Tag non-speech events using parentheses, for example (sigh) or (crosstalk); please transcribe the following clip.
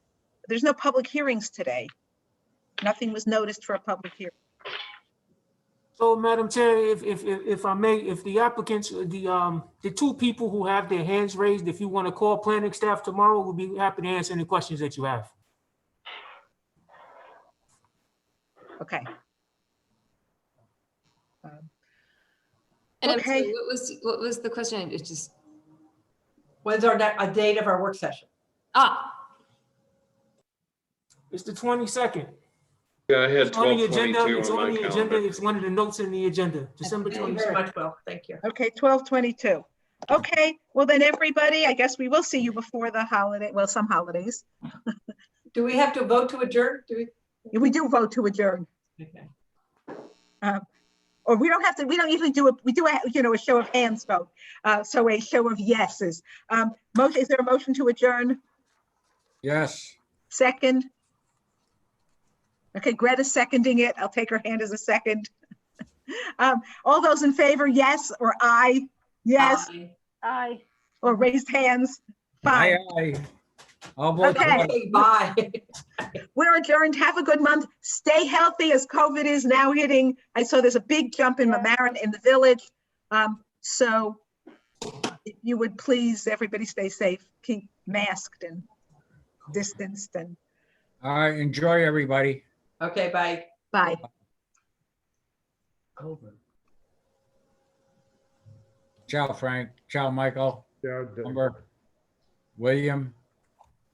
there's no public hearings today. Nothing was noticed for a public hearing. So, Madam Chair, if, if, if if I may, if the applicants, the, um, the two people who have their hands raised, if you want to call planning staff tomorrow, we'll be happy to answer any questions that you have. Okay. Um, And I'm sorry, Okay. what was, what was the question? It just, When's our, ne- a date of our work session? ah, It's the twenty-second. Yeah, I had It's on the twelve agenda, twenty-two it's on on my the agenda, calendar. it's one of the notes in the agenda, December Thank you very twenty-second. much, Will. Thank you. Okay, twelve twenty-two. Okay, well then, everybody, I guess we will see you before the holiday, well, some holidays. Do we have to vote to adjourn? Do We do vote to adjourn, we? Okay. or we don't have to, we don't usually do a, we do, a you know, a show of hands vote. Uh, so a show of yeses. Um, motion, is there a motion to adjourn? Yes, Second? Okay, Greta's seconding it. I'll take her hand as a second. (laughs) Um, all those in favor, yes, or aye? Yes, Aye. Aye. or raised hands? aye, Fine, aye. I'll vote Okay. aye. Okay, bye. (laughs) we're adjourned. Have a good month. Stay healthy as COVID is now hitting. I saw there's a big jump in Yeah. Mamaroneck in the village. Um, so if you would please, everybody stay safe, keep masked and distanced and All right, enjoy, everybody. Okay, bye. bye. Ciao, Frank. Ciao, Michael, Yeah, I did. Amber, William,